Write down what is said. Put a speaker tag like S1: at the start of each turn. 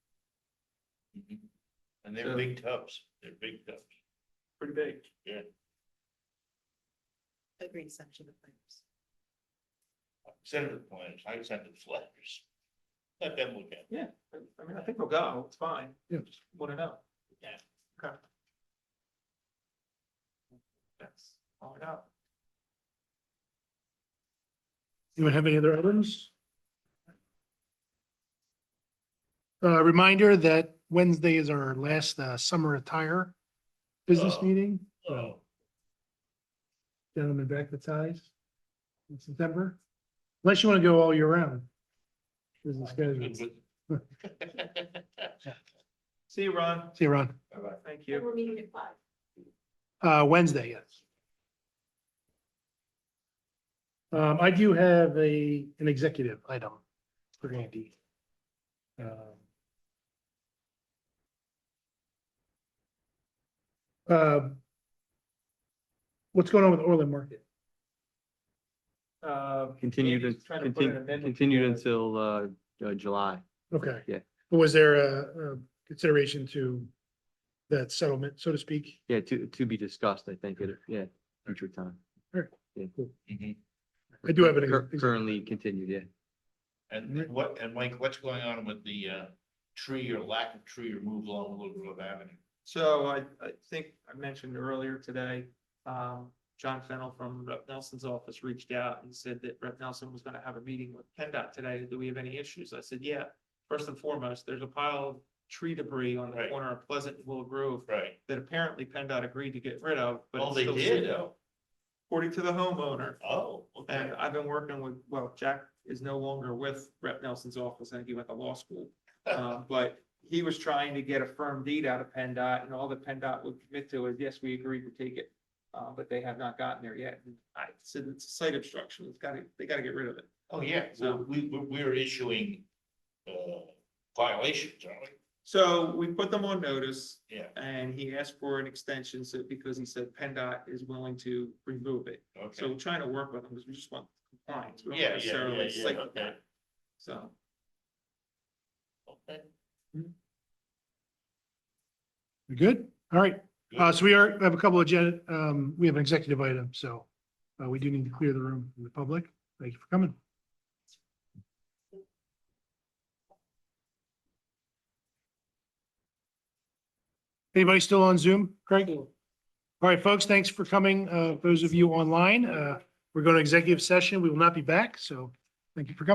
S1: And they're big tubs, they're big tubs.
S2: pretty big.
S3: Agreed, section of claims.
S1: I Send it to the planners, I send it to the letters. Let them look at it.
S2: Yeah, I I mean, I think they'll go, it's fine.
S4: Yeah.
S2: Just Want to know.
S1: Yeah.
S2: Okay. That's all I got.
S4: Anyone have any other items? Uh, reminder that Wednesday is our last, uh, summer attire business
S1: Oh.
S4: meeting.
S1: Oh,
S4: Gentlemen back to ties in September, unless you want to go all year round. Business
S1: good,
S4: casual. See
S1: good.
S2: See you, Ron.
S4: you around,
S1: Bye-bye.
S2: Thank you.
S3: We're meeting at five.
S4: uh, Wednesday, yes. Um, I do have a, an executive item for Andy. Um, Uh, What's going on with Orland Market?
S2: Uh,
S5: Continued,
S2: Andy's
S5: in-
S2: trying to put an
S5: contin-
S2: amendment
S5: continued
S2: together.
S5: until, uh, uh, July.
S4: Okay.
S5: Yeah.
S4: Was there a, a consideration to that settlement, so to speak?
S5: Yeah, to, to be discussed, I think, at, a- yeah, future time.
S1: Mhm.
S4: I do have an.
S5: Cur- Currently continued, yeah.
S1: And what, and Mike, what's going on with the uh tree or lack of tree removal on Little Grove Avenue?
S2: So I, I think I mentioned earlier today, um, John Fennel from Rep Nelson's office reached out and said that Rep Nelson was gonna have a meeting with PennDOT today. Do we have any issues? I said, yeah. First and foremost, there's a pile of tree debris on the
S1: Right.
S2: corner of Pleasant and Willow Grove
S1: Right.
S2: that apparently PennDOT agreed to get rid of, but.
S1: Oh,
S2: it's
S1: they
S2: still
S1: did?
S2: sitting out, According to the homeowner.
S1: Oh, okay.
S2: And I've been working with, well, Jack is no longer with Rep Nelson's office, I think he went to law school. Um, but he was trying to get a firm deed out of PennDOT and all that PennDOT would commit to is, yes, we agree to take it. Uh, but they have not gotten there yet. And I said, it's a site obstruction. It's gotta, they gotta get rid of it.
S1: Oh, yeah, so we, we, we're issuing uh violations, aren't we?
S2: So we put them on notice
S1: Yeah,
S2: and he asked for an extension so, because he said PennDOT is willing to remove it. So
S1: okay.
S2: we're trying to work with them because we just want compliance. We don't
S1: Yeah, yeah,
S2: necessarily
S1: yeah, yeah,
S2: site
S1: okay.
S2: plan. So.
S1: Okay.
S4: You're Good, all right.
S1: good.
S4: Uh, so we are, we have a couple of, gen- um, we have an executive item, so, uh, we do need to clear the room from the public. Thank you for coming. Anybody still on Zoom, Craig? All right, folks, thanks for coming. Uh, those of you online, uh, we're going to executive session. We will not be back, so thank you for coming.